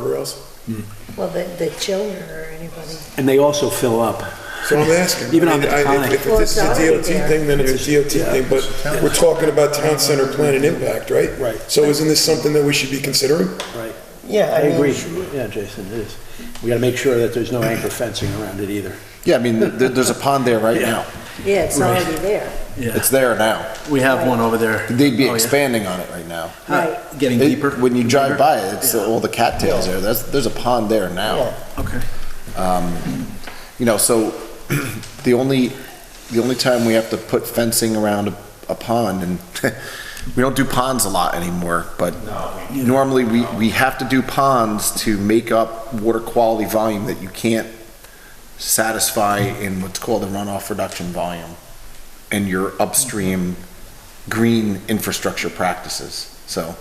guardrails. Well, the, the children or anybody. And they also fill up. So I'm asking. Even I on mean, the I- if- tonic. If it's a Well, it's already DOT there. thing, then it's a DOT yeah. thing, but we're talking about town center plan and impact, right? Right. So isn't this something that we should be considering? Right. Yeah, I I mean, agree. Yeah, Jason, it is. We gotta make sure that there's no anchor fencing around it either. Yeah, I mean, there, there's a pond there right now. Yeah, it's Right. already there. It's there now. We have one over there. They'd be Oh, yeah. expanding on it right now. Right. Getting It- When you drive by it, it's all the cattails there. That's, there's a pond there now. Okay. You know, so the only, the only time we have to put fencing around a, a pond and we don't do ponds a lot anymore, but normally we, we have to do ponds to make up water quality volume that you can't satisfy in what's called the runoff reduction volume and your upstream green infrastructure practices. So,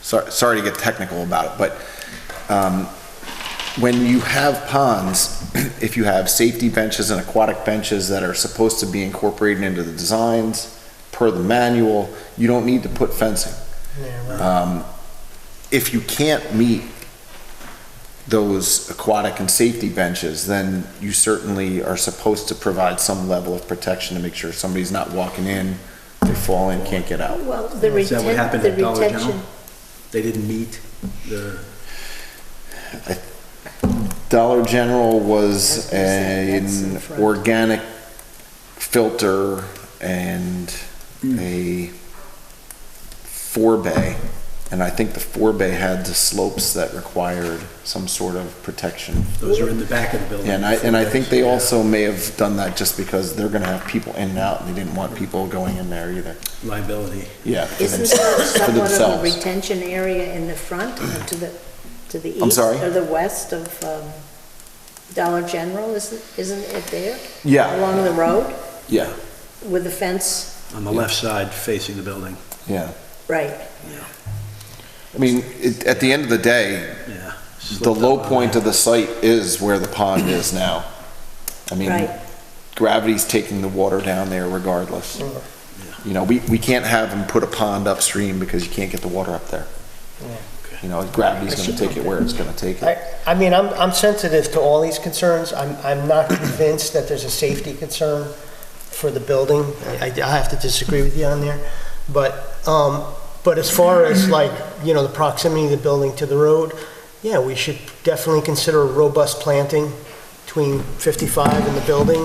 sor- sorry to get technical about it, but, um, when you have ponds, if you have safety benches and aquatic benches that are supposed to be incorporated into the designs per the manual, you don't need to put fencing. Um, If you can't meet those aquatic and safety benches, then you certainly are supposed to provide some level of protection to make sure somebody's not walking in, they fall in, can't get out. Oh, Well, the Is that what retention, happened the at Dollar retention, General? They didn't meet their. Dollar General was I was gonna say, that's in an front. organic filter and a four bay. And I think the four bay had the slopes that required some sort of protection. Those are in the back of the building. Yeah, And I, and I think they also may have done that just because they're gonna have people in and out and they didn't want people going in there either. Liability. Yeah. for isn't themselves- there for somewhat of a themselves. retention area in the front or to the, to the east? I'm sorry? Or the west of um, Dollar General, isn't, isn't it there? Yeah, Along the road yeah, with the fence? On the left side facing the building, yeah. Right. I mean, it, at the end of the day, yeah. the low point of the site is where the pond is now. I mean, Right. gravity's taking the water down there regardless. You know, we, we can't have them put a pond upstream because you can't get the water up there. You know, gravity's gonna take it where it's gonna take it. I, I mean, I'm, I'm sensitive to all these concerns. I'm, I'm not convinced that there's a safety concern for the building. I, I have to disagree with you on there. But, um, but as far as like, you know, the proximity of the building to the road, yeah, we should definitely consider robust planting between 55 and the building,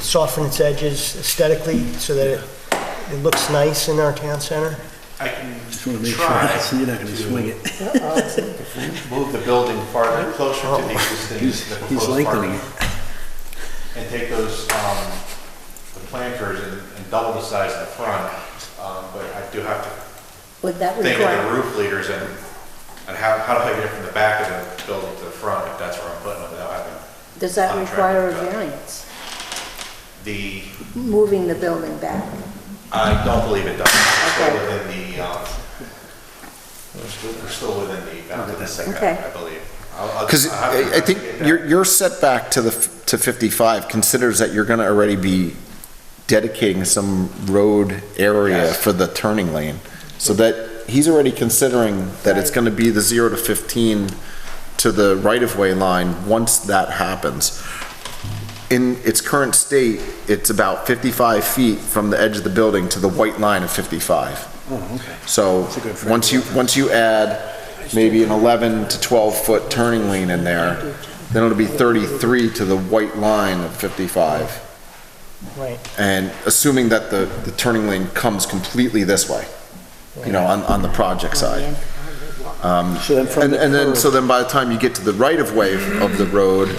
soften its edges aesthetically so that it, it looks nice in our town center. I can Just wanna make sure, Try you're not gonna swing it. move the building farther, closer to the existing, He's- the he's proposed lengthening parking. And take those, um, the planters and and double the size of the front. Um, But I do have to Would that think of the require, roof leaders and, and how, how do I get it from the back of the building to the front if that's where I'm putting them without having does that contract require a with that. variance? the, Moving the building back? I don't believe it does. It's still Okay. within the, um, we're still- we're still within the, bounds of the Okay. setback, I believe. I'll- I'll- Because I'll have to I I think investigate that. your, your setback to the, f- to 55 considers that you're gonna already be dedicating some road area Yes. for the turning lane. So that, he's already considering that it's Right. gonna be the 0 to 15 to the right-of-way line once that happens. In its current state, it's about 55 feet from the edge of the building to the white line of 55. Oh, okay. So, That's a good frame once you, once you add maybe an 11 to 12-foot turning lane in there, then it'll be 33 to the white line of 55. Right. And assuming that the, the turning lane comes completely this way, you know, on, on the project side. So then from And, the and then, curb- so then by the time you get to the right-of-way of the road,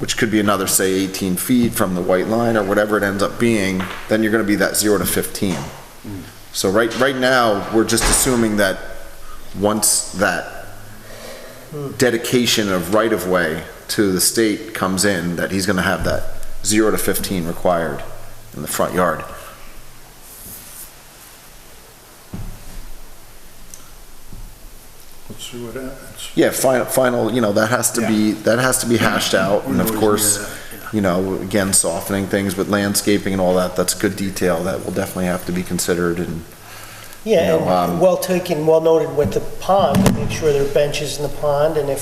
which could be another, say, 18 feet from the white line or whatever it ends up being, then you're gonna be that 0 to 15. So right, right now, we're just assuming that once that dedication of right-of-way to the state comes in, that he's gonna have that 0 to 15 required in the front yard. Let's see what happens. Yeah, final, final, you know, that has to be, that has to be hashed out, and of We've always course, needed you know, again, softening things with landscaping and all that, that's good detail that will definitely have to be considered and, You Yeah, know, and um, well taken, well noted with the pond, make sure there are benches in the pond, and if